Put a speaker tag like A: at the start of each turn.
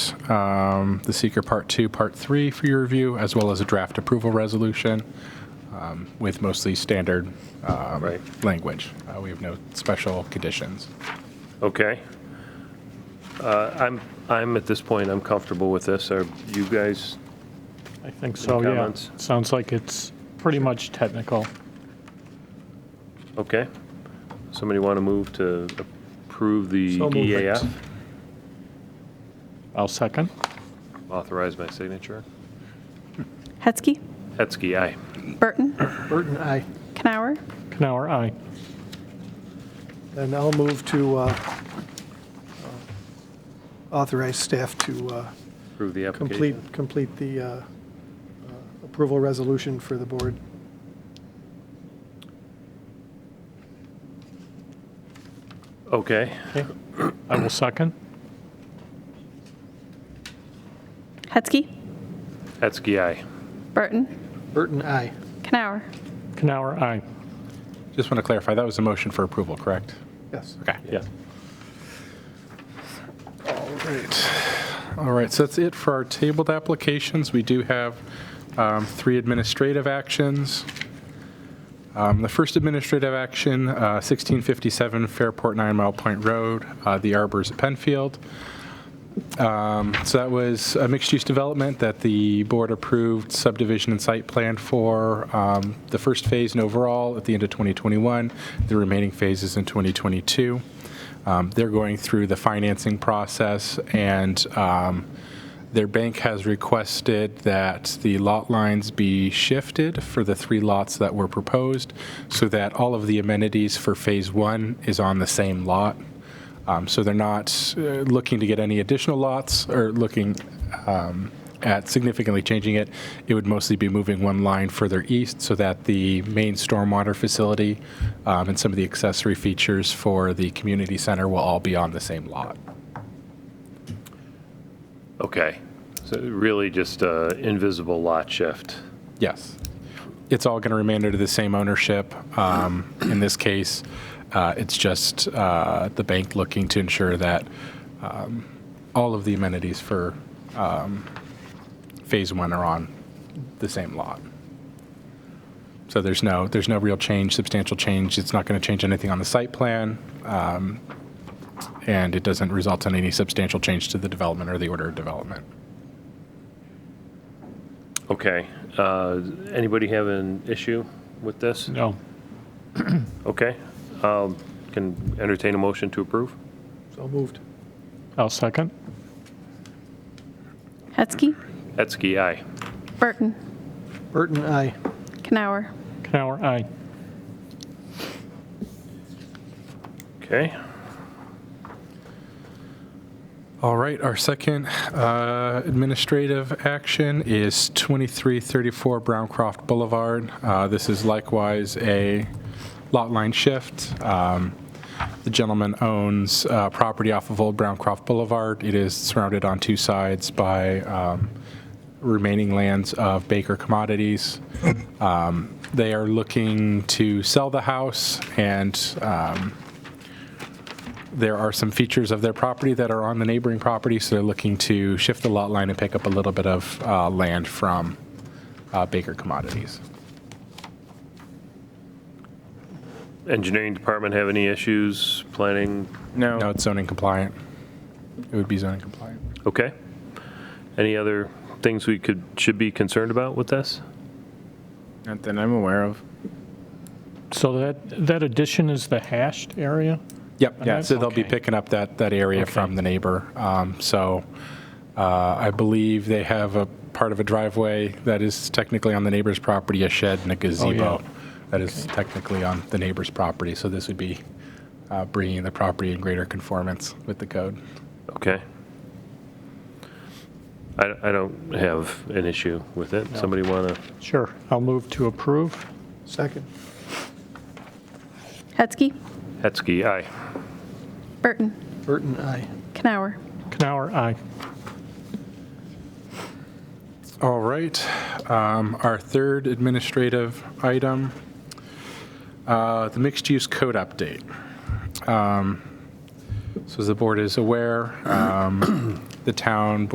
A: um, The Seeker Part 2, Part 3 for your review, as well as a draft approval resolution um, with mostly standard um,
B: Right.
A: language. Uh, We have no special conditions.
B: Okay. Uh, I'm, I'm at this point, I'm comfortable with this. Are you guys,
C: I think so, yeah.
B: comments?
C: Sounds like it's pretty much technical.
B: okay? Somebody want to move to approve the E
C: So moved.
B: EAF?
C: I'll second.
B: Authorize my signature.
D: Hetzke.
B: Hetzke, aye.
D: Burton.
E: Burton, aye.
D: Canower.
C: Canower, aye.
E: And I'll move to uh, authorize staff to uh,
B: Approve the application.
E: complete, complete the uh, uh, approval resolution for the board.
B: Okay,
C: Okay. I will second.
D: Hetzke.
B: Hetzke, aye.
D: Burton.
E: Burton, aye.
D: Canower.
C: Canower, aye.
A: Just want to clarify, that was a motion for approval, correct?
E: Yes.
A: Okay.
B: Yeah.
A: All right, so that's it for our tabled applications. We do have um, three administrative actions. Um, The first administrative action, uh, 1657 Fairport Nine Mile Point Road, uh, the Arbors at Penfield. Um, So that was a mixed-use development that the board approved subdivision and site plan for um, the first phase and overall at the end of 2021, the remaining phases in 2022. Um, They're going through the financing process, and um, their bank has requested that the lot lines be shifted for the three lots that were proposed, so that all of the amenities for Phase 1 is on the same lot. Um, So they're not uh, looking to get any additional lots or looking um, at significantly changing it. It would mostly be moving one line further east so that the main stormwater facility um, and some of the accessory features for the community center will all be on the same lot.
B: Okay, so really just a invisible lot shift.
A: Yes. It's all going to remain under the same ownership. Um, In this case, uh, it's just uh, the bank looking to ensure that um, all of the amenities for um, Phase 1 are on the same lot. So there's no, there's no real change, substantial change. It's not going to change anything on the site plan, um, and it doesn't result in any substantial change to the development or the order of development.
B: Okay, uh, anybody have an issue with this?
C: No.
B: Okay, um, can entertain a motion to approve?
E: So moved.
C: I'll second.
D: Hetzke.
B: Hetzke, aye.
D: Burton.
E: Burton, aye.
D: Canower.
C: Canower, aye.
B: Okay,
A: All right, our second uh, administrative action is 2334 Browncroft Boulevard. Uh, This is likewise a lot line shift. Um, The gentleman owns uh, property off of Old Browncroft Boulevard. It is surrounded on two sides by um, remaining lands of Baker Commodities. Um, They are looking to sell the house and um, there are some features of their property that are on the neighboring property, so they're looking to shift the lot line and pick up a little bit of uh, land from uh, Baker Commodities.
B: engineering department have any issues, planning?
F: Oh.
A: No, it's zoning compliant. It would be zoning compliant.
B: Okay, any other things we could, should be concerned about with this?
F: Not that I'm aware of.
C: So that, that addition is the hashed area?
A: Yep, yeah, so they'll be
C: Okay.
A: picking up that, that area from the neighbor. Um, So uh, I believe they have a part of a driveway that is technically on the neighbor's property, a shed and a gazebo that is technically on the neighbor's property. So this would be uh, bringing the property in greater conformance with the code.
B: Okay. I, I don't have an issue with it. Somebody want to,
C: Sure. I'll move to approve.
E: Second.
D: Hetzke.
B: Hetzke, aye.
D: Burton.
E: Burton, aye.
D: Canower.
C: Canower, aye.
A: All right. Um, Our third administrative item, uh, the mixed-use code update. Um, So as the board is aware, um, the town